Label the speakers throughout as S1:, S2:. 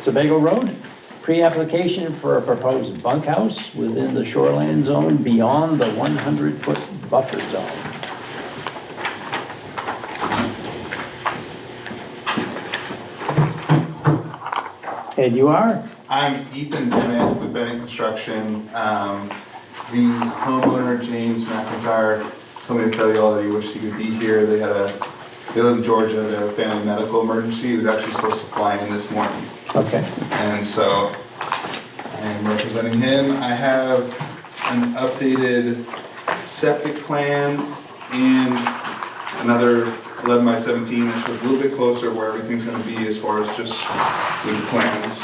S1: Sebago Road, pre-application for a proposed bunkhouse within the shoreline zone beyond the 100-foot buffer zone. And you are?
S2: I'm Ethan Bennett with Bennett Construction. Um, The homeowner, James McIntyre, told me to tell you all that he wished he could be here. They had a, they live in Georgia, they had a family medical emergency. He was actually supposed to fly in this morning.
S1: Okay.
S2: And so I am representing him. I have an updated septic plan and another 11 by 17, which is a little bit closer where everything's going to be as far as just with the plans.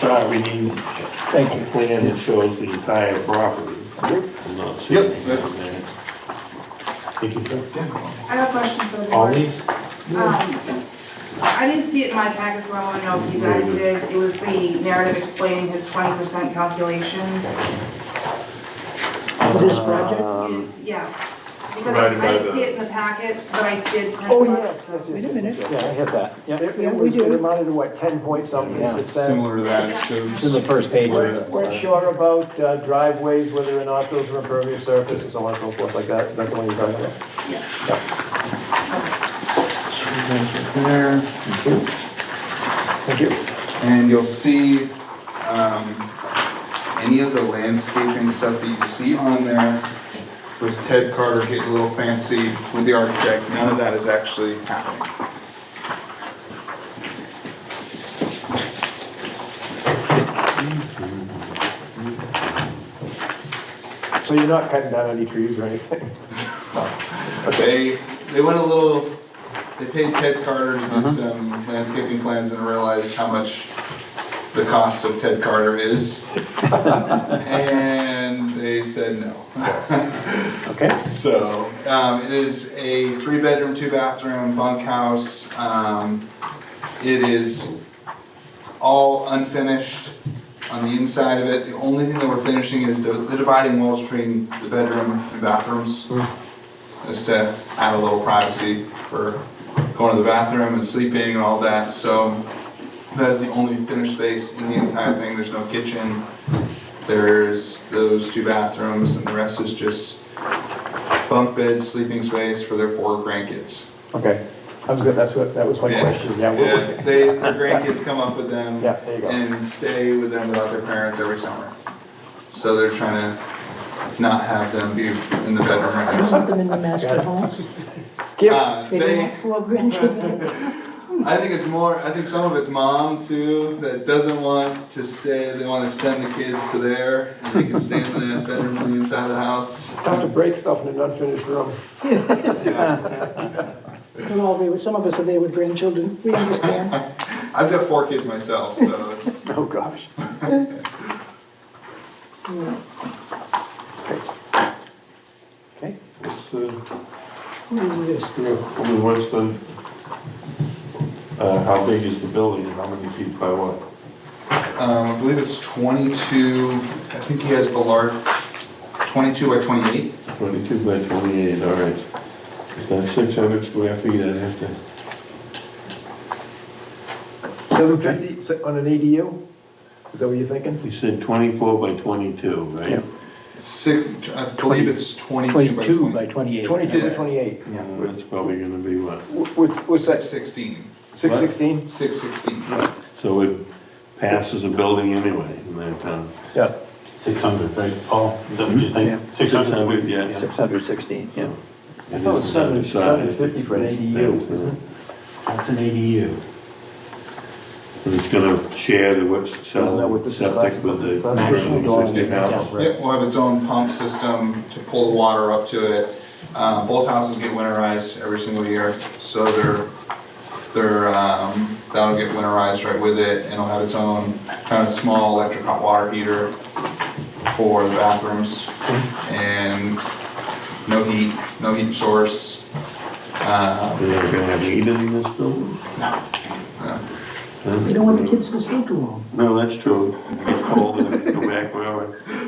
S3: But we need a plan that shows the entire property. I'm not seeing
S2: Yep,
S3: anything
S2: that's-
S3: there. Thank you, sir.
S4: I have a question for the board.
S3: All these?
S4: Um, I didn't see it in my packet, so I want to know if you guys did. It was the narrative explaining his twenty percent calculations.
S5: For this project?
S4: Is, yes, because
S3: provided by
S4: I didn't
S3: the-
S4: see it in the packets, but I did. print
S5: Oh,
S4: it out.
S5: yes, yes, yes.
S1: Wait a minute. Yeah, I have that. Yeah.
S5: It Yeah, it we was, do. it amounted to what, 10 point something
S1: Yeah,
S5: percent?
S2: Similar to that, it
S1: It's in the
S2: shows,
S1: first page.
S5: Weren't weren't sure about uh, driveways, whether or not those were impervious surface and so on and so forth like that, that's the one you're talking about.
S2: there,
S5: Thank you.
S2: and you'll see, um, any of the landscaping stuff that you see on there was Ted Carter getting a little fancy with the architect, none of that is actually happening.
S5: So you're not cutting down any trees or anything?
S2: They, they went a little, they paid Ted Carter
S5: Uh-huh.
S2: to do some landscaping plans and realized how much the cost of Ted Carter is. And they said no.
S1: Okay.
S2: So, um, it is a three-bedroom, two-bathroom bunkhouse. Um, it is all unfinished on the inside of it. The only thing that we're finishing is the, the dividing walls between the bedroom and bathrooms. Just to add a little privacy for going to the bathroom and sleeping and all that. So that is the only finished space in the entire thing. There's no kitchen. There's those two bathrooms and the rest is just bunk bed, sleeping space for their four grandkids.
S5: Okay, that was good, that's what, that was my
S2: Yeah.
S5: question, yeah.
S2: Yeah,
S5: we're-
S2: they, their grandkids come up with them.
S5: Yeah, there you go.
S2: And stay with them without their parents every summer. So they're trying to not have them be in the bedroom right now.
S6: Put them in the master home.
S5: Give-
S2: Uh,
S6: They don't
S2: they,
S6: have four grandchildren.
S2: I think it's more, I think some of it's mom too, that doesn't want to stay, they wanna send the kids to there, and they can stay in the bedroom on the inside of the house.
S5: Tough to break stuff in an unfinished room.
S6: We're all there, with- some of us are there with grandchildren, we understand.
S2: I've got four kids myself, so it's,
S5: Oh, gosh.
S1: Okay.
S3: It's, uh,
S6: What is this?
S3: yeah, I mean, what's the, uh, how big is the building and how many feet by what?
S2: um, I believe it's twenty-two, I think he has the large, twenty-two by twenty-eight.
S3: Twenty-two by twenty-eight, all right. Is that six hundred square feet? I'd have to,
S5: 750 s- on an ADU? Is that what you're thinking?
S3: you said twenty-four by twenty-two, right?
S2: Six, I believe it's 22
S1: 22 by
S2: by
S1: 28.
S2: 20.
S5: 22 to 28.
S3: Yeah, That's probably gonna be what?
S5: Wh- What's, what's that,
S2: 16,
S5: 616?
S2: 616.
S3: So it passes a building anyway in that town.
S1: Yeah,
S7: 600, right, Paul? Is that what you
S1: Yeah.
S7: think? 600?
S3: 600, yeah.
S1: 616, yeah.
S5: I thought it was seven-
S3: It isn't
S5: 750 for an
S3: undersized,
S5: ADU,
S3: it's-
S5: isn't it?
S7: That's an ADU.
S3: And it's gonna share the, what's,
S5: Isn't that what
S3: so
S5: this is
S3: septic
S5: about?
S3: with the
S5: That's personal dwelling
S3: 360
S5: unit,
S3: house.
S5: yeah, right.
S2: Yep, we'll have its own pump system to pull the water up to it. Uh, Both houses get winterized every single year, so they're, they're, um, that'll get winterized right with it, and it'll have its own kind of small electric hot water heater for the bathrooms, and no heat, no heat source. Uh,
S3: They're gonna have heat in this building?
S2: No, no.
S3: Huh?
S6: We don't want the kids to stay too long.
S3: No, that's true. It's cold in the back, wherever.